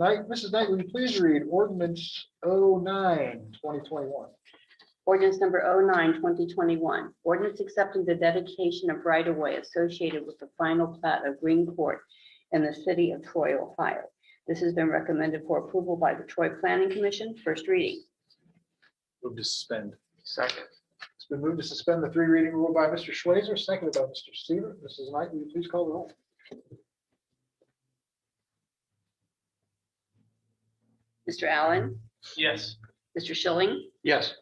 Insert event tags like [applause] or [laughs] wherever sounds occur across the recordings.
Knight, Mrs. Knight, would you please read ordinance 09-2021? Ordinance number 09-2021. ordinance accepting the dedication of right-of-way associated with the final plat of Green Court in the city of Troy, Ohio. This has been recommended for approval by the Troy Planning Commission, first reading. Move to suspend. Second. It's been moved to suspend the three reading rule by Mr. Schweitzer, seconded by Mr. Seaver. Mrs. Knight, will you please call the roll? Mr. Allen, Yes. Mr. Schilling, Yes.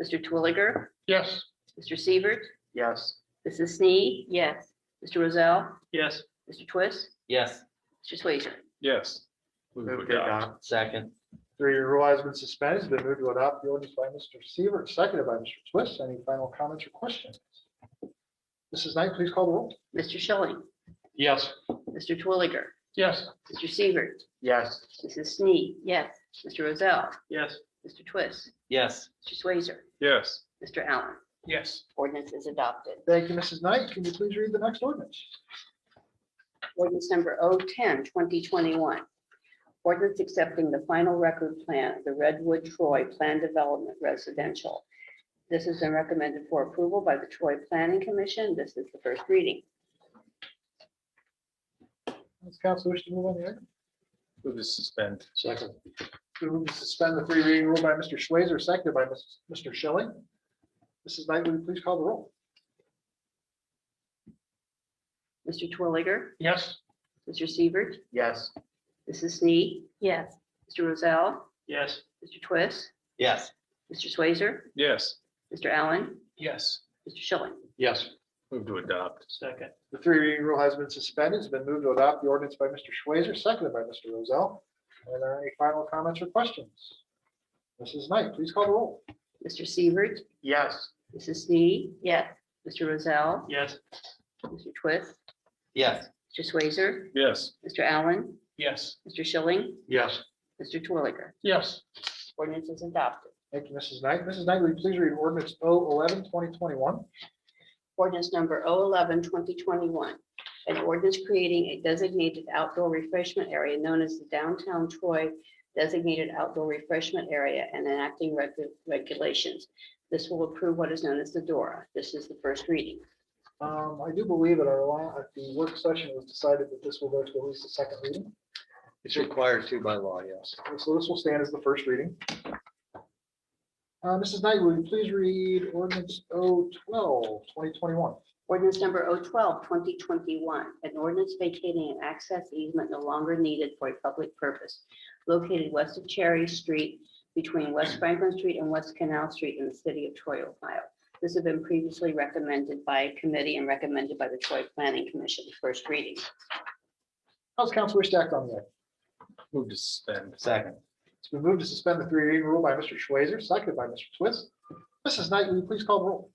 Mr. Twilliger, Yes. Mr. Seaver, Yes. Mrs. Sneed. Yes. Mr. Rozell, Yes. Mr. Twist, Yes, Mr. Swazer. Yes. Move to adopt. second, Three-year rule has been suspended. It's been moved to adopt the ordinance by Mr. Seaver, seconded by Mr. Twist. Any final comments or questions? Mrs. Knight, please call the roll. Mr. Schilling, Yes. Mr. Twilliger, Yes. Mr. Seaver, Yes. Mrs. Sneed. Yes. Mr. Rozell, Yes. Mr. Twist, yes, Mr. Swazer, Yes. Mr. Allen. Yes. Ordinance is adopted. Thank you, Mrs. Knight. Can you please read the next ordinance? Ordinance number 010, 2021. Ordinance accepting the final record plan of the Redwood Troy Plan Development Residential. This has been recommended for approval by the Troy Planning Commission. This is the first reading. Does council wish to move on the item? Move to suspend. Second. We move to suspend the three reading rule by Mr. Schweitzer, seconded by Ms- Mr. Schilling. Mrs. Knight, will you please call the roll? Mr. Twilliger, Yes. Mr. Seaver, Yes. Mrs. Snead. Yes. Mr. Rozell, Yes. Mr. Twist, yes, Mr. Swazer, Yes. Mr. Allen, Yes. Mr. Schilling. Yes. Move to adopt. Second. The three reading rule has been suspended. It's been moved to adopt the ordinance by Mr. Schweitzer, seconded by Mr. Rozell. Are there any final comments or questions? Mrs. Knight, please call the roll. Mr. Seaver, Yes. Mrs. Snead. Yes. Mr. Rozell, Yes. Mr. Twist, yes, Mr. Swazer, Yes. Mr. Allen, Yes. Mr. Schilling, Yes. Mr. Twilliger. Yes. Ordinance is adopted. Thank you, Mrs. Knight. Mrs. Knight, will you please read ordinance 011 2021? Ordinance number 011, 2021. An ordinance creating a designated outdoor refreshment area known as the downtown Troy designated outdoor refreshment area and enacting regu- regulations. This will approve what is known as the DORA. This is the first reading. Um, I do believe at our, la- at the work session, it was decided that this will go to at least the second reading. It's required to by law, yes. So this will stand as the first reading. Uh, Mrs. Knight, will you please read ordinance 012 2021? Ordinance number 012, 2021. An ordinance vacating an access easement no longer needed for a public purpose located west of Cherry Street between West Franklin Street and West Canal Street in the city of Troy, Ohio. This has been previously recommended by committee and recommended by the Troy Planning Commission, first reading. How's council wish to act on the item? Move to suspend. second, It's been moved to suspend the three reading rule by Mr. Schweitzer, seconded by Mr. Twist. Mrs. Knight, will you please call the roll?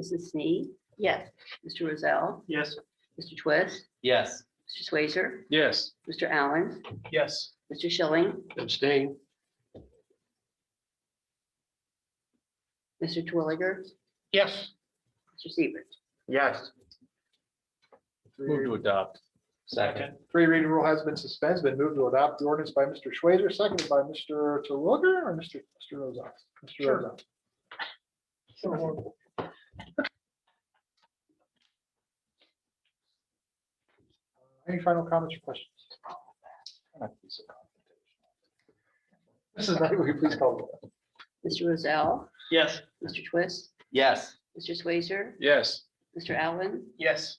Mrs. Sneed? Yes. Mr. Rozell? Yes. Mr. Twist? yes, Mr. Swazer? Yes. Mr. Allen? Yes. Mr. Schilling? Abstain. Mr. Twilliger? Yes. Mr. Seaver? Yes. Move to adopt. second, Three reading rule has been suspended, It's been moved to adopt the ordinance by Mr. Schweitzer, seconded by Mr. Terwilliger or Mr. Mr. Rozak? Mr. Rozak. Any final comments or questions? Mrs. Knight, [laughs] will you please call the roll? Mr. Rozell? Yes. Mr. Twist? yes, Mr. Swazer? Yes. Mr. Allen, Yes.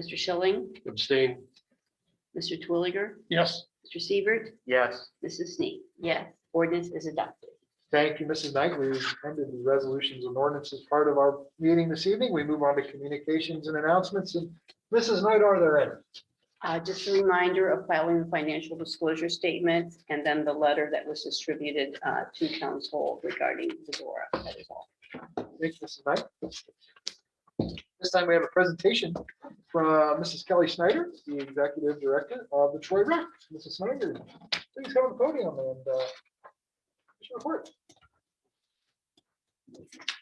Mr. Schilling, Abstain. Mr. Twilliger, Yes. Mr. Seaver, Yes. Mrs. Sneak. Yes. Ordinance is adopted. Thank you, Mrs. Knight. We ended the resolutions and ordinances part of our meeting this evening. We move on to communications and announcements. And Mrs. Knight, are there any? Uh, Just a reminder of filing the financial disclosure statement and then the letter that was distributed uh, to council regarding the DORA. That is all. Thank you, Mrs. Knight. This time we have a presentation from uh, Mrs. Kelly Snyder, the Executive Director of the Troy Rec. Mrs. Snyder, please come to the podium and uh, give your report.